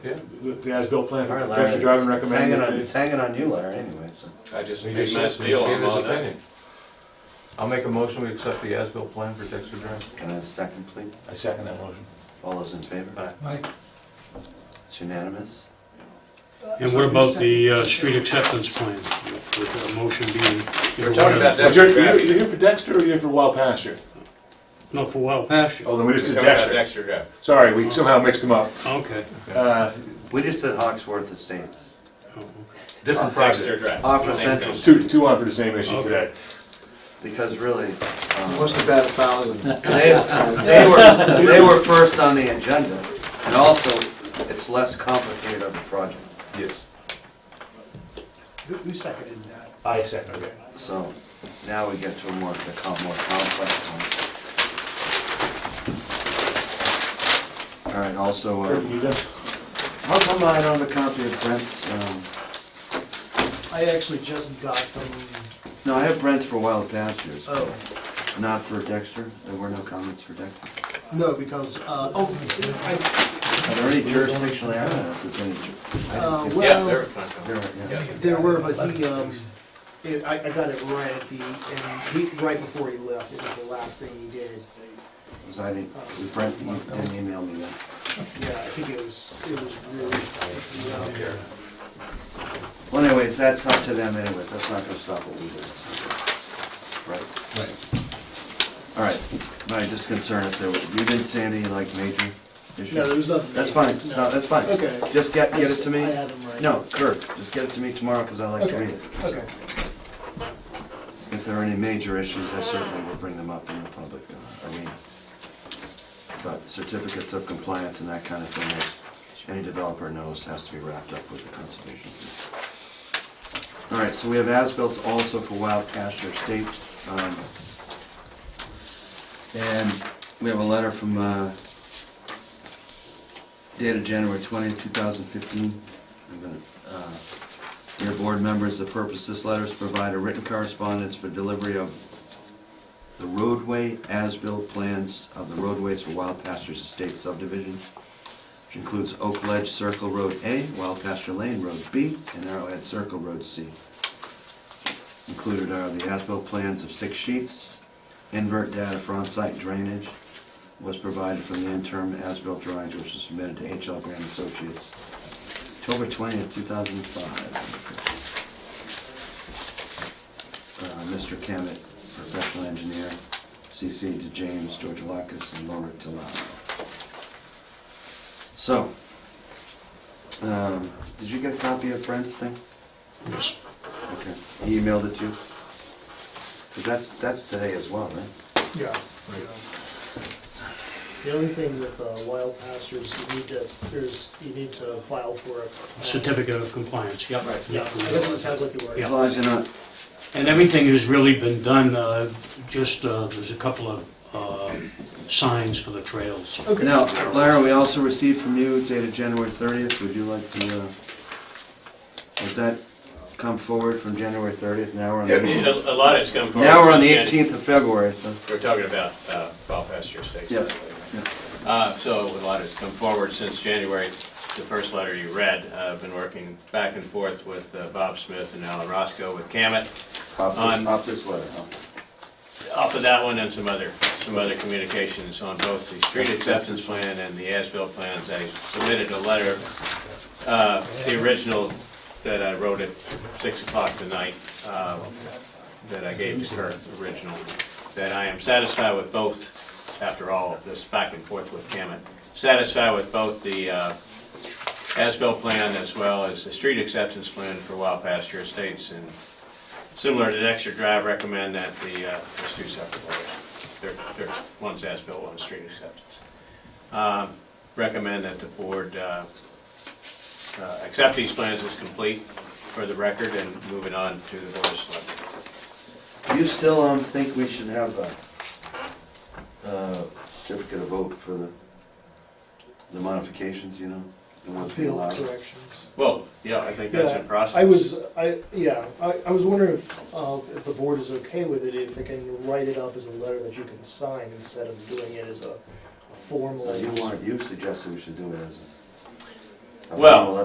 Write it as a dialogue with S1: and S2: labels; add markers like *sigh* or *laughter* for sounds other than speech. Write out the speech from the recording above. S1: Yeah, the- the as-built plan for
S2: All right,
S1: Dexter
S2: Larry,
S1: Drive and
S2: it's hanging on,
S1: recommend.
S2: it's hanging on you, Larry, anyway, so.
S3: I just
S4: He
S3: made
S4: just
S3: my
S4: just
S3: deal
S4: gave
S3: on
S4: his
S3: all that.
S4: opinion. I'll make a motion, we accept the as-built plan for Dexter Drive.
S2: Can I have a second, please?
S1: I second that motion.
S2: All those in favor?
S4: Aye.
S5: Mike?
S2: It's unanimous?
S6: And what about the uh, street acceptance plan, with the motion being...
S3: We're talking
S1: But
S3: about that-
S1: you're, you're you're here for Dexter or you're here for Wild Pasture?
S6: No, for Wild Pasture,
S1: Oh, then we just did
S3: We're talking about
S1: Dexter.
S3: Dexter Drive.
S1: Sorry, we somehow mixed them up.
S6: okay.
S1: Uh,
S2: We just said Hawksworth Estates.
S6: Oh, okay.
S4: Different
S3: Dexter
S4: project.
S3: Drive.
S2: Off of
S3: Same
S2: Central
S3: thing.
S1: Two, two on for the same issue
S6: Okay.
S1: today.
S2: Because really, um,
S5: What's the bad thousand?
S2: they, they were, they were first on the agenda, and also, it's less complicated of a project,
S4: Yes.
S5: Who who seconded that?
S1: I second it.
S2: so now we get to a more, the com- more complex one. All right, also, uh,
S1: You done?
S2: how come I don't have a copy of Brent's, um,
S5: *laughs* I actually just got them,
S2: no, I have Brent's for Wild Pastures,
S5: oh,
S2: not for Dexter, there were no comments for Dexter.
S5: no, because, uh, oh, I,
S2: Are there any jurisdictional errors? Is there any ju- I
S5: uh,
S2: didn't see that.
S3: Yeah, they're
S5: well,
S2: There
S3: contract.
S2: are, yeah.
S5: there were, but he, um, it- I, I got it right at the, and he, right before he left, it was the last thing he did.
S2: Because I didn't, Brent didn't email me that.
S5: Yeah, I think it was, it was really, you know,
S2: Well anyways, that's up to them anyways, that's not gonna stop what we do. so. Right? All right, my just concern if there were, you didn't see any like major issues?
S5: no, there was nothing.
S2: That's fine, it's not- that's fine.
S5: Okay.
S2: Just get,
S5: I
S2: get it
S5: just-
S2: to me?
S5: I had them right.
S2: No, Kirk, just get it to me tomorrow because I like to read it.
S5: Okay, okay.
S2: If there are any major issues, I certainly will bring them up in the public uh, arena. But certificates of compliance and that kind of thing, that any developer knows has to be wrapped up with the conservation. All right, so we have as-built also for Wild Pasture Estates. um, And we have a letter from, uh, dated January 20, 2015. I'm gonna, uh, Dear board members, the purpose of this letter is to provide a written correspondence for delivery of the roadway as-built plans of the roadways for Wild Pastures Estate subdivision, which includes Oak Ledge Circle Road A, Wild Pasture Lane Road B, and Arrowhead Circle Road C. Included are the as-built plans of six sheets, invert data for on-site drainage was provided from the interim as-built drawings which was submitted to H.L. Grant Associates October twentieth, two thousand and five. Mr. uh, Kemet, professional engineer, CC to James Georgialakis and Laura Tilano. So, um, did you get a copy of Brent's thing?
S6: Yes.
S2: Okay, he emailed it to you? Cause that's, that's today as well, right?
S5: Yeah. yeah. The only thing with uh, wild pastures, you need to, there's, you need to file for it.
S6: Certificate of compliance, yep.
S5: Right, yeah, I guess it sounds like you were.
S6: Yeah.
S2: As long as you're not,
S6: And everything has really been done, uh, just, uh, there's a couple of uh, signs for the trails.
S5: Okay.
S2: now, Lara, we also received from you dated January thirtieth, would you like to, uh, has that come forward from January thirtieth, now we're on
S3: Yeah,
S2: the.
S3: I mean, A a lot has come forward.
S2: Now we're on the
S3: since then.
S2: 18th of February, so.
S3: We're talking about uh, Wild Pasture Estates.
S2: Yeah, yeah.
S3: Uh, So a lot has come forward since January, the first letter you read. Uh, I've been working back and forth with uh, Bob Smith and Alan Roscoe with Camet
S2: Off
S3: On-
S2: this, off this letter, huh?
S3: off of that one and some other, some other communications on both the street acceptance plan and the as-built plans. I submitted a letter, uh, the original that I wrote at six o'clock tonight, uh, that I gave to Kurt, original, that I am satisfied with both, after all of this back and forth with Kemet, satisfied with both the, uh, as-built plan as well as the street acceptance plan for Wild Pasture Estates and Similar to Dexter Drive, recommend that the, uh, there's two separate letters. There- There's one's as-built, one's street acceptance. Um, Recommend that the board uh, uh, accept these plans as complete for the record and move it on to the board of selectmen.
S2: Do you still, um, think we should have a, uh, certificate of vote for the, the modifications, you know? The ones we
S5: Field
S2: allowed?
S5: corrections.
S3: Well, yeah, I think that's in
S5: Yeah,
S3: process.
S5: I was, I, yeah, I, I was wondering if, uh, if the board is okay with it, if they can write it up as a letter that you can sign instead of doing it as a a formal.
S2: Uh, You want, you suggested we should do it as,
S7: Okay,
S2: Well,